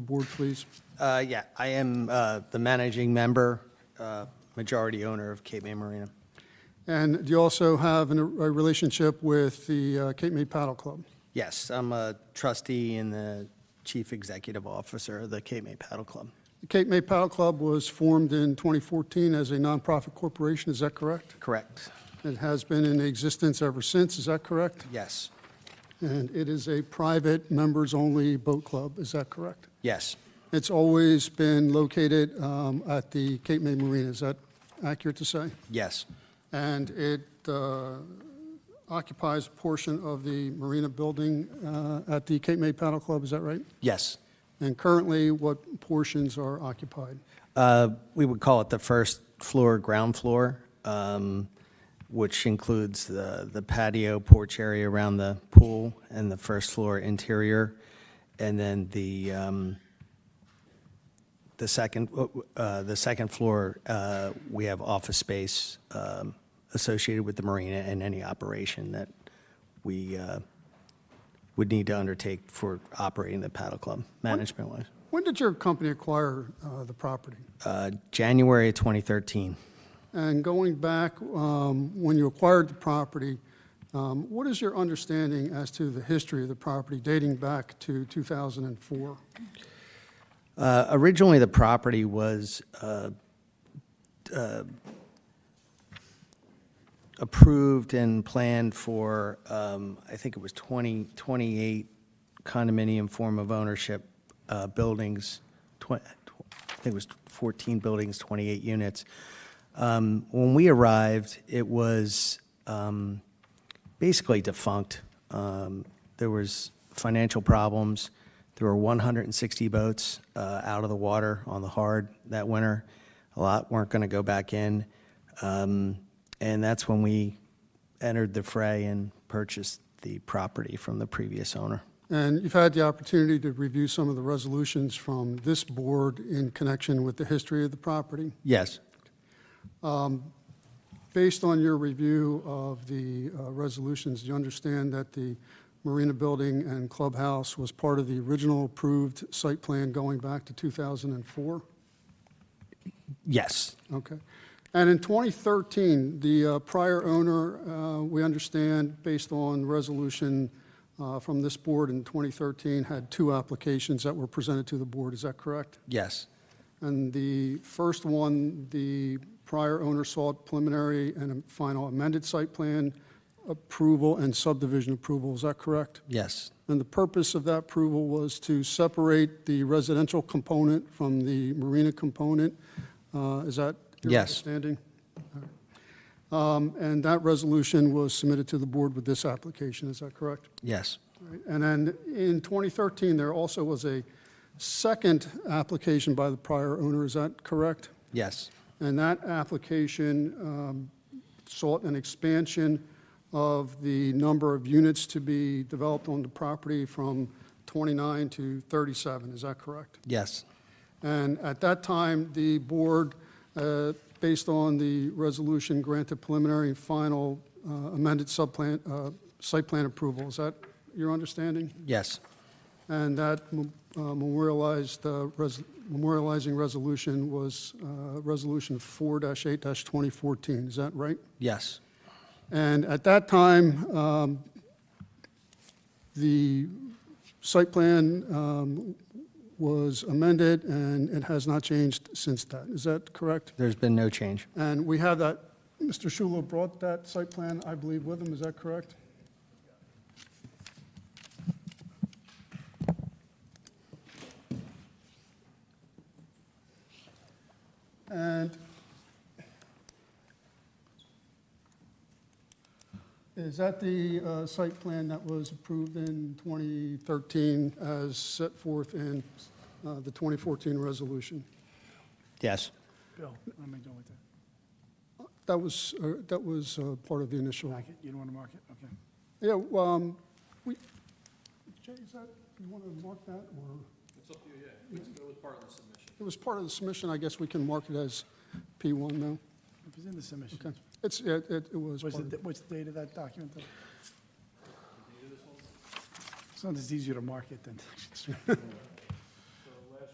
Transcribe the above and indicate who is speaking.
Speaker 1: the board, please?
Speaker 2: Uh, Yeah, I am uh, the managing member, uh, majority owner of Cape May Marina.
Speaker 1: And do you also have an- a relationship with the uh, Cape May Paddle Club?
Speaker 2: Yes, I'm a trustee and the chief executive officer of the Cape May Paddle Club.
Speaker 1: The Cape May Paddle Club was formed in 2014 as a nonprofit corporation, is that correct?
Speaker 2: Correct.
Speaker 1: It has been in existence ever since, is that correct?
Speaker 2: Yes,
Speaker 1: And it is a private, members-only boat club, is that correct?
Speaker 2: yes,
Speaker 1: It's always been located um, at the Cape May Marina, is that accurate to say?
Speaker 2: yes,
Speaker 1: And it uh, occupies a portion of the marina building uh, at the Cape May Paddle Club, is that right?
Speaker 2: yes.
Speaker 1: And currently, what portions are occupied?
Speaker 2: Uh, We would call it the first floor, ground floor, um, which includes the the patio porch area around the pool and the first floor interior, and then the, um, the second, uh, the second floor, uh, we have office space um, associated with the marina and any operation that we uh, would need to undertake for operating the paddle club, management-wise.
Speaker 1: When did your company acquire uh, the property?
Speaker 2: Uh, January 2013.
Speaker 1: And going back, um, when you acquired the property, um, what is your understanding as to the history of the property dating back to 2004?
Speaker 2: Uh, Originally, the property was uh, uh, approved and planned for, um, I think it was 20, 28 condominium form of ownership uh, buildings, twen- I think it was 14 buildings, 28 units. Um, When we arrived, it was um, basically defunct. Um, There was financial problems. There were 160 boats uh, out of the water on the hard that winter. A lot weren't going to go back in. Um, And that's when we entered the fray and purchased the property from the previous owner.
Speaker 1: And you've had the opportunity to review some of the resolutions from this board in connection with the history of the property.
Speaker 2: Yes,
Speaker 1: Based on your review of the uh, resolutions, do you understand that the Marina Building and Clubhouse was part of the original approved site plan going back to 2004?
Speaker 2: yes,
Speaker 1: Okay. And in 2013, the uh, prior owner, uh, we understand, based on resolution uh, from this board in 2013, had two applications that were presented to the board. Is that correct?
Speaker 2: yes,
Speaker 1: And the first one, the prior owner sought preliminary and a final amended site plan approval and subdivision approval, is that correct?
Speaker 2: yes,
Speaker 1: And the purpose of that approval was to separate the residential component from the marina component. Uh, Is that your
Speaker 2: Yes.
Speaker 1: understanding? All right. Um, And that resolution was submitted to the board with this application, is that correct?
Speaker 2: yes,
Speaker 1: Right, And then in 2013, there also was a second application by the prior owner, is that correct?
Speaker 2: yes,
Speaker 1: And that application um, sought an expansion of the number of units to be developed on the property from 29 to 37, is that correct?
Speaker 2: yes,
Speaker 1: And at that time, the board, uh, based on the resolution, granted preliminary and final uh, amended subplan, uh, site plan approval. Is that your understanding?
Speaker 2: yes,
Speaker 1: And that m- uh, memorialized, uh, res- memorializing resolution was uh, Resolution 4-8-2014, is that right?
Speaker 2: yes,
Speaker 1: And at that time, um, the site plan um, was amended, and it has not changed since that. Is that correct?
Speaker 2: there's been no change.
Speaker 1: And we have that, Mr. Shulo brought that site plan, I believe, with him, is that correct? And is that the uh, site plan that was approved in 2013 as set forth in uh, the 2014 resolution?
Speaker 2: Yes,
Speaker 3: Bill, let me go with that.
Speaker 1: That was, uh, that was uh, part of the initial.
Speaker 3: Mark it, you don't want to mark it, okay.
Speaker 1: Yeah, well, um, we, Jay, is that, you want to mark that, or? It's up to you, yeah. It was part of the submission. It was part of the submission, I guess we can mark it as P1 now.
Speaker 3: If it's in the submission.
Speaker 1: Okay. It's, it, it it was
Speaker 3: What's
Speaker 1: part
Speaker 3: the,
Speaker 1: of,
Speaker 3: da- what's the date of that document? though? It's not as easy to mark it than.